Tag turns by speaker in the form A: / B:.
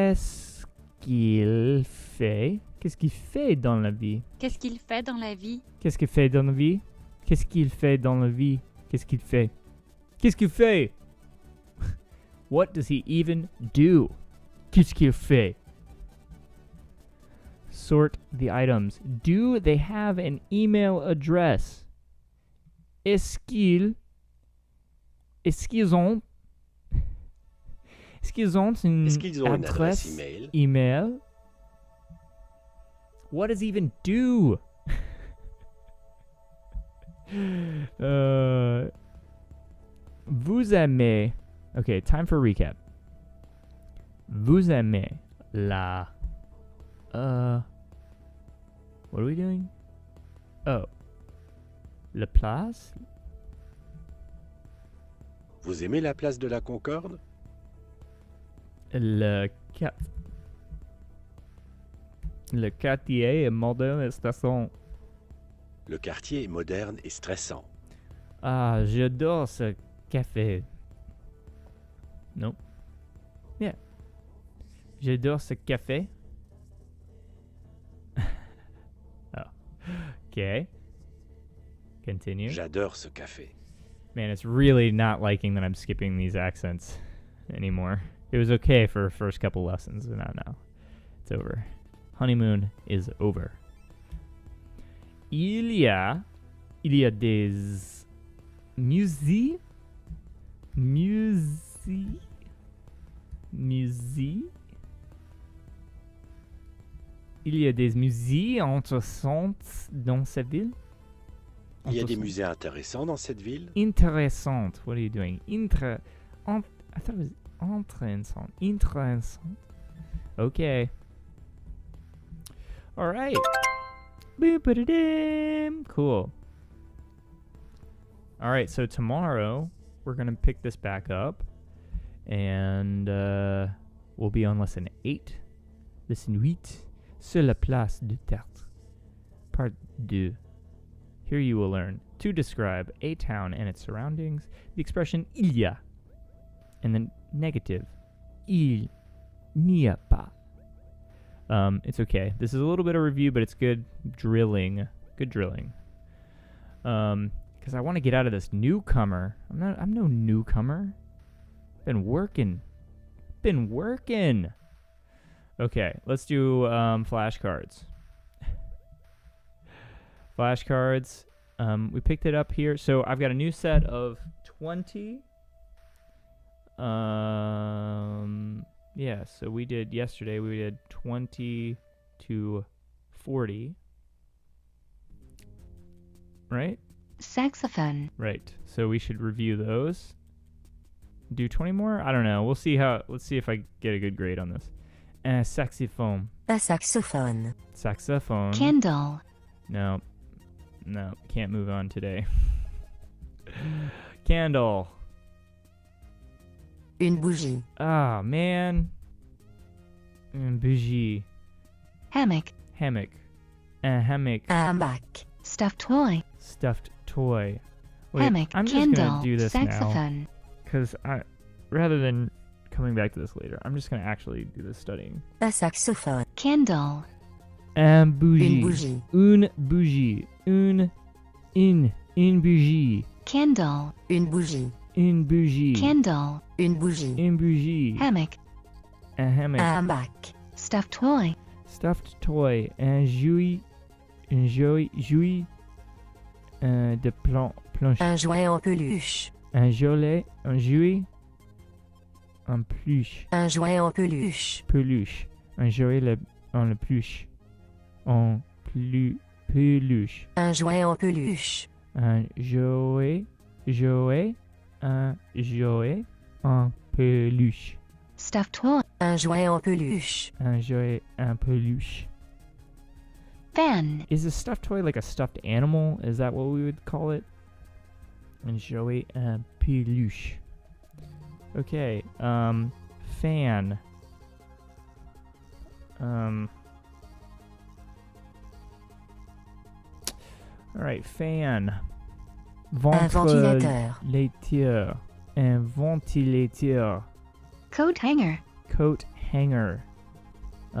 A: Qu'est-ce qu'il fait Qu'est-ce qu'il fait dans la vie
B: Qu'est-ce qu'il fait dans la vie
A: Qu'est-ce qu'il fait dans la vie Qu'est-ce qu'il fait dans la vie Qu'est-ce qu'il fait Qu'est-ce qu'il fait What does he even do Qu'est-ce qu'il fait Sort the items. Do they have an email address Est-ce qu'ils Est-ce qu'ils ont Est-ce qu'ils ont une
C: Est-ce qu'ils ont une adresse
A: Hmm. adresse
C: email
A: email. What does even do? Euh, vous aimez. Okay, time for recap. Vous aimez la. Uh. What are we doing? Oh. La place?
C: Vous aimez la place de la Concorde
A: Le cap. Le quartier est moderne et station.
C: Le quartier est moderne et stressant.
A: Ah, j'adore ce café. Non. Yeah. J'adore ce café. oh. Okay. Continue.
C: J'adore ce café.
A: Man, it's really not liking that I'm skipping these accents anymore. It was okay for first couple lessons, but not now. It's over. Honeymoon is over. Il y a, il y a des musées, musées, musées. Il y a des musées intéressantes dans cette ville.
C: Il y a des
A: Intéressante-
C: musées intéressants dans cette ville.
A: Intéressante. What are you doing? Intra. ent- I thought it was interessant. Interessant. Okay. All right. Boop-a-da-dam. Cool. All right. So tomorrow we're gonna pick this back up, and uh, we'll be on lesson eight, lesson huit, sur la place du théâtre, part deux. Here you will learn to describe a town and its surroundings, the expression il y a, and the negative il n'y a pas. Um, it's okay. This is a little bit of review, but it's good drilling. Good drilling. Um, because I want to get out of this newcomer. I'm not. I'm no newcomer. Been working. Been working. Okay, let's do um, flashcards flashcards. Um, we picked it up here. So I've got a new set of 20. Um, yeah, so we did yesterday, we did 20 to 40. Right?
B: Saxophone.
A: Right. So we should review those. Do 20 more? I don't know. We'll see how, let's see if I get a good grade on this. Uh, saxophone.
D: Un saxophone.
A: Saxophone.
B: Candle.
A: No. No. Can't move on today. Candle.
D: Une bougie.
A: Ah, man. Mm, Bougie.
B: Hammock. Uh.
A: Hammock. A hammock.
D: Un hamac.
B: Stuffed toy.
A: Stuffed toy. Wait,
B: hammock.
A: I'm just
B: Candle.
A: gonna do this now.
B: Saxophone.
A: Because I, rather than coming back to this later, I'm just gonna actually do this studying.
D: Un saxophone.
B: Candle.
A: Un bougie.
D: Une bougie.
A: Une bougie. Une. Une. Une bougie.
B: Candle.
D: Une bougie.
A: Une bougie.
B: Candle.
D: Une bougie.
A: Une bougie.
B: Hammock.
A: A hammock.
D: Un hamac.
B: Stuffed toy.
A: stuffed toy and jouy and jouy jouy uh, de plan planche
D: Un jouet en peluche.
A: un jolet un jouet un pluche
D: Un jouet en peluche.
A: peluche un jouet le en le pluche en plu peluche
D: Un jouet en peluche.
A: un jouet jouet un jouet en peluche
B: Stuffed toy.
D: Un jouet en peluche.
A: un jouet en peluche
B: Fan.
A: Is a stuffed toy like a stuffed animal? Is that what we would call it? And Joey uh, peluche. Okay. Um, fan. Um. All right, fan.
D: Un
A: Ventre
D: ventilateur.
A: laitier. And ventilateur.
B: Coat hanger.
A: Coat hanger.